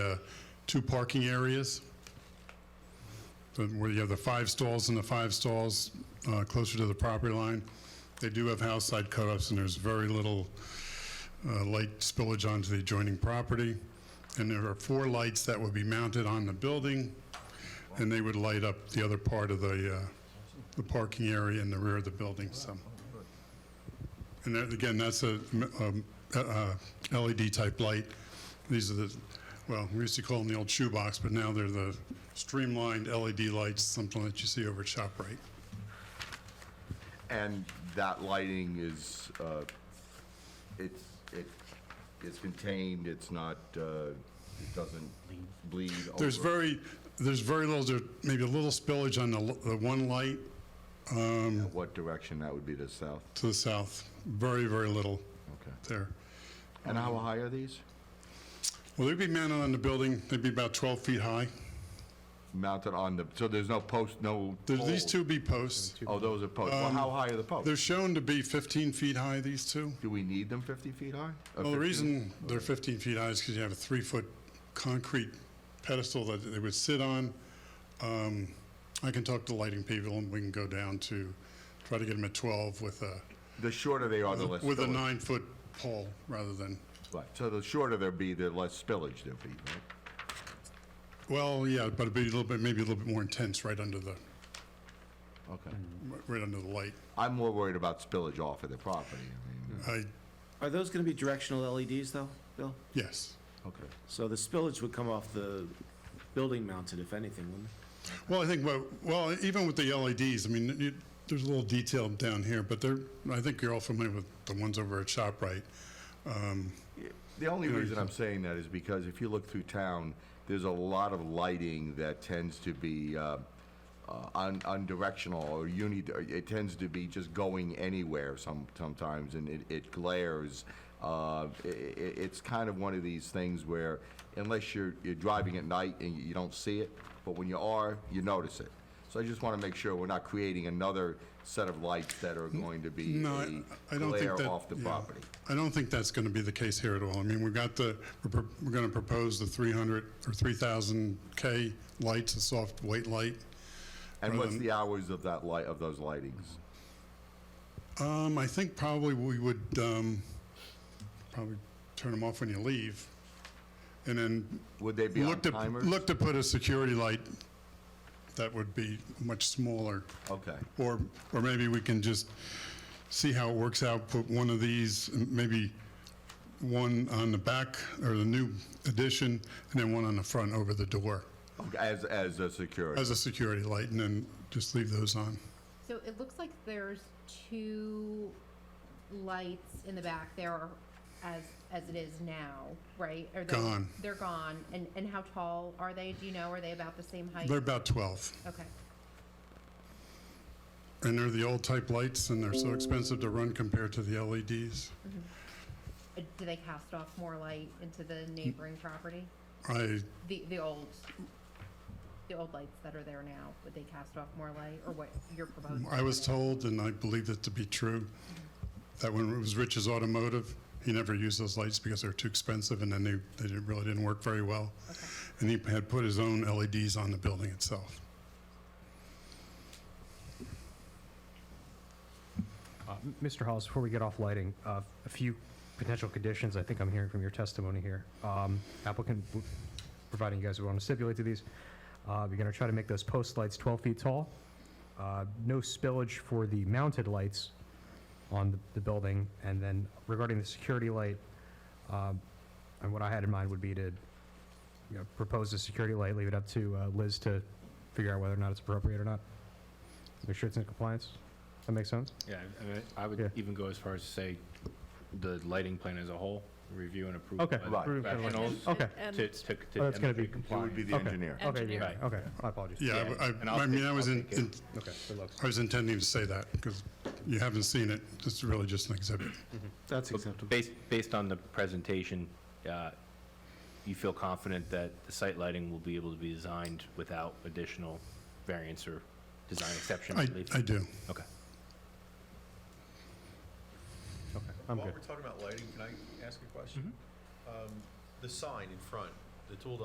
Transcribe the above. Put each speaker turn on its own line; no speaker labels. uh, two parking areas, the- where you have the five stalls and the five stalls uh, closer to the property line. They do have house side cutoffs, and there's very little uh, light spillage onto the adjoining property. And there are four lights that would be mounted on the building, and they would light up the other part of the, uh, the parking area in the rear of the building, so. And that, again, that's a, um, a- a LED-type light. These are the, well, we used to call them the old shoebox, but now they're the streamlined LED lights, something that you see over at ShopRite.
And that lighting is, uh, it's, it is contained, it's not, uh, it doesn't bleed over?
There's very, there's very little, there maybe a little spillage on the, l- the one light
What direction that would be to south?
to the south, very, very little
Okay.
there.
And how high are these?
Well, they'd be mounted on the building, they'd be about 12 feet high.
Mounted on the, so there's no post, no
There's These
poles?
two be posts.
Oh, those are posts. Well, how high are the posts?
They're shown to be 15 feet high, these two.
Do we need them 50 feet high? Or
Well, the
15?
reason they're 15 feet high is because you have a three-foot concrete pedestal that they would sit on. Um, I can talk to lighting people, and we can go down to, try to get them at 12 with a,
The shorter they are, the less
with a
spillage.
nine-foot pole rather than,
Right. So the shorter they'll be, the less spillage there'll be, right?
well, yeah, but it'd be a little bit, maybe a little bit more intense right under the,
Okay.
right under the light.
I'm more worried about spillage off of the property. I mean,
I,
Are those gonna be directional LEDs though, Bill?
yes.
okay.
So the spillage would come off the building mounted, if anything, wouldn't it?
Well, I think, well- well, even with the LEDs, I mean, you- there's a little detail down here, but they're, I think you're all familiar with the ones over at ShopRite.
The only reason I'm saying that is because if you look through town, there's a lot of lighting that tends to be uh, uh, un- undirectional or uni. It tends to be just going anywhere some sometimes, and it, it glares. Uh, i i it's kind of one of these things where, unless you're you're driving at night and you don't see it, but when you are, you notice it. So I just want to make sure we're not creating another set of lights that are going to be
No, I-
a
I don't
glare
think that.
off the
yeah.
property.
I don't think that's going to be the case here at all. I mean, we've got the, we're pro- we're going to propose the 300 or 3,000 K lights, a soft white light.
And what's
Mm-hmm.
the hours of that light, of those lightings?
Um, I think probably we would, um, probably turn them off when you leave. And then
Would they be on
look to,
timers?
look to put a security light that would be much smaller.
Okay,
Or, or maybe we can just see how it works out, put one of these, maybe one on the back or the new addition, and then one on the front over the door
Okay, as, as a security.
as a security light, and then just leave those on.
So it looks like there's two lights in the back there as, as it is now, right? Are they-
Gone.
They're gone. And, and how tall are they? Do you know? Are they about the same height?
They're about 12,
Okay.
and they're the old type lights, and they're so expensive to run compared to the E LEDs.
Uh, Do they cast off more light into the neighboring property?
I,
The, the old, the old lights that are there now, would they cast off more light or what you're proposing?
I was told, and I believe it to be true, that when it was Rich's Automotive, he never used those lights because they're too expensive, and then they, they didn't- really didn't work very well. And he had put his own LEDs on the building itself.
Uh, M- Mr. Hollis, before we get off lighting, uh, a few potential conditions, I think I'm hearing from your testimony here. Um, Applicant, w- providing you guys would want to stipulate to these, uh, you're going to try to make those post lights 12 feet tall, uh, no spillage for the mounted lights on the- the building, and then regarding the security light, um, and what I had in mind would be to, you know, propose a security light, leave it up to uh, Liz to figure out whether or not it's appropriate or not. Make sure it's in compliance. That makes sense?
Yeah, I mean, I
Yeah.
would even go as far as to say the lighting plan as a whole, review and approve.
Okay.
by the
Right.
Professionals.
Okay.
To,
And-
to, to.
Oh, that's gonna
It would
be-
demonstrate
be
compliance.
the
Okay.
engineer.
Okay,
Engineer.
yeah, okay, my apologies.
Yeah, I-
and
I,
I'll
I mean,
take-
I was
I'll
in,
take it.
in-
Okay, good luck.
I was intending to say that, because you haven't seen it, it's really just an exhibit.
Mm-hmm.
That's
But
acceptable.
Based, based on the presentation, uh, you feel confident that the site lighting will be able to be designed without additional variance or design exception
I,
relief?
I do.
Okay.
I'm
While
good. Mm-hmm.
we're talking about lighting, can I ask a question? Um, The sign in front, the tool